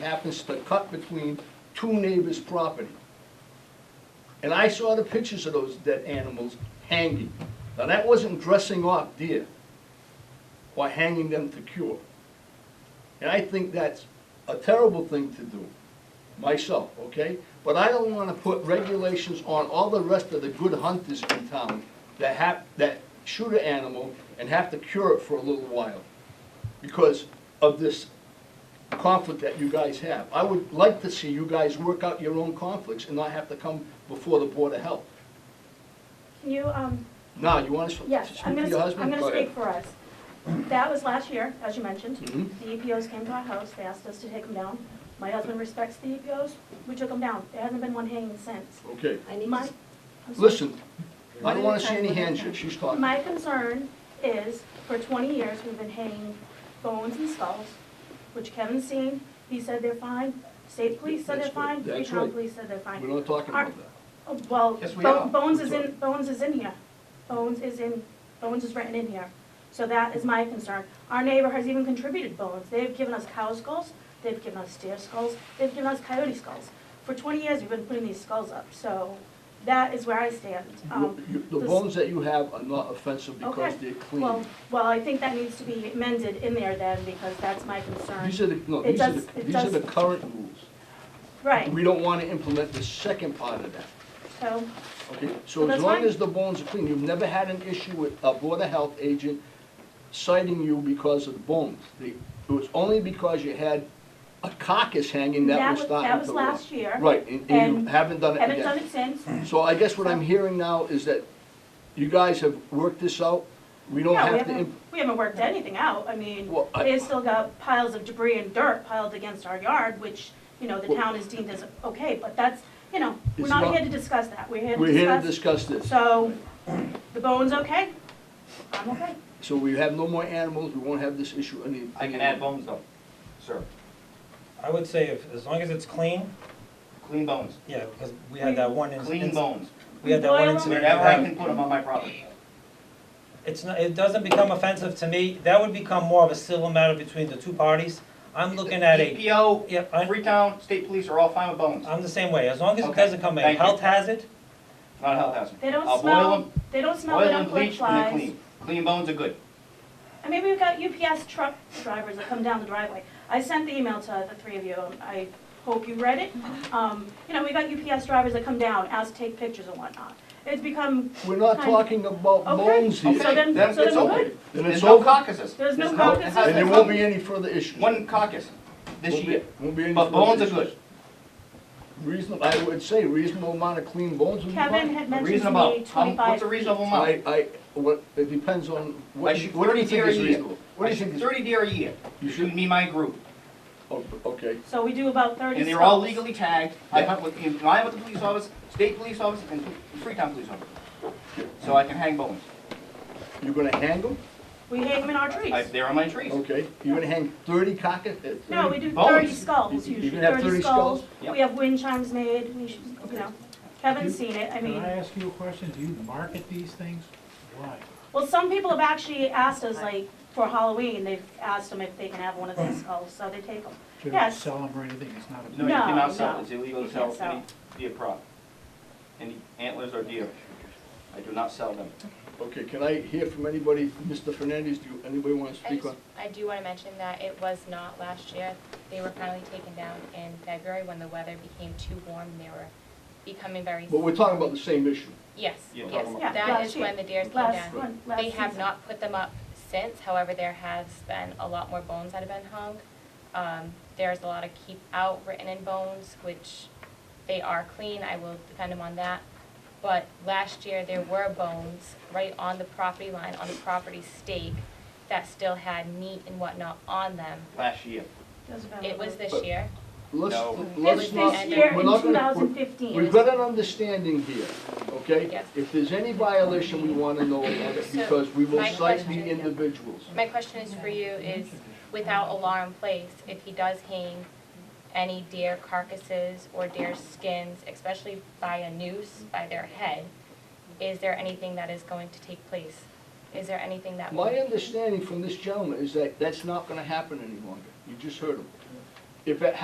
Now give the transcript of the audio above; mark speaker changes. Speaker 1: happens to cut between two neighbors' property. And I saw the pictures of those dead animals hanging. Now, that wasn't dressing off deer or hanging them to cure. And I think that's a terrible thing to do, myself, okay? But I don't wanna put regulations on all the rest of the good hunters in town that have, that shoot an animal and have to cure it for a little while because of this conflict that you guys have. I would like to see you guys work out your own conflicts and not have to come before the Board of Health.
Speaker 2: Can you, um,
Speaker 1: Now, you wanna s- speak
Speaker 2: yes, I'm
Speaker 1: to
Speaker 2: gonna,
Speaker 1: your
Speaker 2: s- I'm
Speaker 1: husband?
Speaker 2: gonna speak for us. That was last year, as you mentioned.
Speaker 1: Mhm.
Speaker 2: The EPOs came to our house, they asked us to take them down. My husband respects the EPOs, we took them down. There hasn't been one hanging since.
Speaker 1: Okay,
Speaker 3: I need
Speaker 2: My-
Speaker 3: to-
Speaker 2: I'm sorry.
Speaker 1: listen, I don't wanna see any hands here, she's talking.
Speaker 2: My concern is, for 20 years, we've been hanging bones and skulls, which Kevin's seen, he said they're fine, state police said they're
Speaker 1: That's right,
Speaker 2: fine,
Speaker 1: that's
Speaker 2: Freetown
Speaker 1: right.
Speaker 2: police said they're
Speaker 1: We're
Speaker 2: fine.
Speaker 1: not talking about that.
Speaker 2: Oh, Well,
Speaker 1: Yes, we
Speaker 2: Bo-
Speaker 1: are.
Speaker 2: Bones is
Speaker 1: We're
Speaker 2: in, Bones is in here, Bones is in, Bones is written in here, so that is my concern. Our neighbor has even contributed bones, they've given us cow skulls, they've given us deer skulls, they've given us coyote skulls. For 20 years, we've been putting these skulls up, so that is where I stand. Um,
Speaker 1: You- The
Speaker 2: this-
Speaker 1: bones that you have are not offensive because
Speaker 2: Okay.
Speaker 1: they're clean.
Speaker 2: Well, well, I think that needs to be amended in there then, because that's my concern.
Speaker 1: These are the, no,
Speaker 2: It
Speaker 1: these are
Speaker 2: does-
Speaker 1: the,
Speaker 2: it
Speaker 1: these are the
Speaker 2: does-
Speaker 1: current rules.
Speaker 2: Right,
Speaker 1: We don't wanna implement the second part of that.
Speaker 2: so,
Speaker 1: Okay,
Speaker 2: Well,
Speaker 1: so as
Speaker 2: that's
Speaker 1: long
Speaker 2: fine.
Speaker 1: as the bones are clean, you've never had an issue with a Board of Health agent citing you because of the bones. They- It was only because you had a carcass hanging that
Speaker 2: That
Speaker 1: was
Speaker 2: was-
Speaker 1: starting
Speaker 2: that was
Speaker 1: to rot.
Speaker 2: last year,
Speaker 1: Right, and, and you
Speaker 2: and
Speaker 1: haven't done it
Speaker 2: haven't done
Speaker 1: again.
Speaker 2: it since.
Speaker 1: So I guess what I'm hearing now is that you guys have worked this out. We don't
Speaker 2: Yeah, we
Speaker 1: have to,
Speaker 2: haven't,
Speaker 1: imp-
Speaker 2: we haven't worked anything out, I mean,
Speaker 1: Well, I-
Speaker 2: they still got piles of debris and dirt piled against our yard, which, you know, the
Speaker 1: Well-
Speaker 2: town is deemed as okay, but that's, you know, we're
Speaker 1: It's
Speaker 2: not
Speaker 1: not-
Speaker 2: here to discuss that, we're here to discuss.
Speaker 1: we're here to discuss this.
Speaker 2: So, the bone's okay, I'm okay.
Speaker 1: So we have no more animals, we won't have this issue any.
Speaker 4: I can add bones though, sir,
Speaker 5: I would say if, as long as it's clean,
Speaker 4: clean bones,
Speaker 5: yeah, because we had that one inc-
Speaker 4: clean
Speaker 5: inc-
Speaker 4: bones,
Speaker 5: We had that one
Speaker 2: Boil 'em.
Speaker 5: incident.
Speaker 4: wherever I
Speaker 1: um,
Speaker 5: where-
Speaker 4: can
Speaker 5: um,
Speaker 4: put them on my property.
Speaker 5: It's not, it doesn't become offensive to me, that would become more of a civil matter between the two parties. I'm looking at a,
Speaker 4: EPO,
Speaker 5: yeah, I,
Speaker 4: Freetown, state police are all fine with bones,
Speaker 1: Uh,
Speaker 5: I'm the same way, as long as it
Speaker 4: Okay,
Speaker 5: doesn't come a
Speaker 4: thank you.
Speaker 5: health hazard,
Speaker 4: not a health hazard.
Speaker 2: They don't
Speaker 4: I'll boil
Speaker 2: smell,
Speaker 4: 'em,
Speaker 2: they don't smell,
Speaker 4: Boil
Speaker 2: they
Speaker 4: them,
Speaker 2: don't
Speaker 4: bleach,
Speaker 2: collect
Speaker 4: and they're
Speaker 2: flies.
Speaker 4: clean. Clean bones are good.
Speaker 2: I mean, we've got UPS truck drivers that come down the driveway. I sent the email to the three of you, and I hope you read it. Um, you know, we got UPS drivers that come down, ask to take pictures and whatnot. It's become,
Speaker 1: We're not
Speaker 2: Fine.
Speaker 1: talking about
Speaker 2: Okay.
Speaker 1: bones
Speaker 2: So
Speaker 1: here.
Speaker 4: Okay,
Speaker 2: then- so then
Speaker 4: it's
Speaker 2: we're
Speaker 4: okay.
Speaker 2: good.
Speaker 1: Then
Speaker 4: There's
Speaker 1: it's
Speaker 4: no
Speaker 1: over.
Speaker 4: caucuses.
Speaker 2: There's no caucuses.
Speaker 1: And there won't be any further issues.
Speaker 4: One caucus this
Speaker 1: Won't be-
Speaker 4: year,
Speaker 1: Won't be any
Speaker 4: but
Speaker 1: further
Speaker 4: bones are
Speaker 1: issues.
Speaker 4: good.
Speaker 1: Reasonable, I would say reasonable amount of clean bones would be fine.
Speaker 2: Kevin had
Speaker 4: A
Speaker 2: mentioned to
Speaker 4: reasonable,
Speaker 2: me
Speaker 4: how- what's a
Speaker 2: twenty-five feet.
Speaker 4: reasonable amount?
Speaker 1: I, I, what, it depends on,
Speaker 4: I
Speaker 1: what, you-
Speaker 4: shoot
Speaker 1: what do
Speaker 4: thirty
Speaker 1: you think
Speaker 4: deer a
Speaker 1: is
Speaker 4: year.
Speaker 1: reasonable? What
Speaker 4: I
Speaker 1: do you
Speaker 4: shoot
Speaker 1: think is?
Speaker 4: thirty deer a year,
Speaker 1: You
Speaker 4: between
Speaker 1: should,
Speaker 4: me and my group.
Speaker 1: oh, okay,
Speaker 2: So we do about thirty
Speaker 4: And they're all
Speaker 2: stalls.
Speaker 4: legally tagged. I hunt with, and I hunt with the police office, state police office, and Freetown police office. So I can hang bones.
Speaker 1: you're gonna hang them?
Speaker 2: We hang them in our
Speaker 4: I-
Speaker 2: trees.
Speaker 4: They're on my trees.
Speaker 1: Okay, you're gonna hang thirty cockets? uh, 30?
Speaker 2: No, we do
Speaker 4: Bones.
Speaker 2: thirty
Speaker 4: You-
Speaker 2: skulls
Speaker 1: you
Speaker 2: usually,
Speaker 1: can have 30
Speaker 2: thirty skulls.
Speaker 1: skulls?
Speaker 4: Yep.
Speaker 2: We have wind chimes made, we should, you know, Kevin's seen it, I mean.
Speaker 6: Can I ask you a question? Do you market these things? Why?
Speaker 2: Well, some people have actually asked us, like, for Halloween, they've asked them if they can have one of these skulls, so they take them.
Speaker 6: To
Speaker 2: Yes.
Speaker 6: sell them or anything? It's not a
Speaker 4: No, you
Speaker 2: No,
Speaker 4: cannot sell,
Speaker 2: no.
Speaker 4: it. it's illegal
Speaker 2: You
Speaker 4: to
Speaker 2: can't
Speaker 4: sell any deer prop, any antlers or deer. I do not sell them.
Speaker 1: Okay, can I hear from anybody, Mr. Fernandez, do you- anybody wanna
Speaker 7: I
Speaker 1: speak
Speaker 7: just,
Speaker 1: on?
Speaker 7: I do want to mention that it was not last year. They were finally taken down in February when the weather became too warm and they were becoming very.
Speaker 1: But we're talking about the same issue.
Speaker 7: Yes,
Speaker 4: You're
Speaker 7: yes.
Speaker 4: talking
Speaker 2: about- Yeah,
Speaker 7: That
Speaker 2: last
Speaker 7: is when the deer came
Speaker 2: Last
Speaker 7: down.
Speaker 2: one, last
Speaker 7: They have
Speaker 2: season.
Speaker 7: not put them up since, however, there has been a lot more bones that have been hung. Um, There's a lot of keep out written in bones, which they are clean, I will defend them on that. But last year, there were bones right on the property line, on the property stake, that still had meat and whatnot on them.
Speaker 4: Last year,
Speaker 2: Doesn't matter.
Speaker 7: It was this
Speaker 1: But-
Speaker 7: year.
Speaker 1: Let's,
Speaker 4: No.
Speaker 7: It
Speaker 1: let's
Speaker 7: was
Speaker 1: not.
Speaker 2: this year
Speaker 1: we're
Speaker 2: in
Speaker 1: not gonna- we're-
Speaker 2: 2015.
Speaker 1: We've got an understanding here, okay?
Speaker 7: Yes.
Speaker 1: If there's any violation, we wanna know about it,
Speaker 7: So,
Speaker 1: because we will
Speaker 7: my
Speaker 1: cite the
Speaker 7: question-
Speaker 1: individuals.
Speaker 7: My question is for you is, without a law in place, if he does hang any deer carcasses or deer skins, especially by a noose, by their head, is there anything that is going to take place? Is there anything that will?
Speaker 1: My understanding from this gentleman is that that's not gonna happen any longer. You just heard him. If it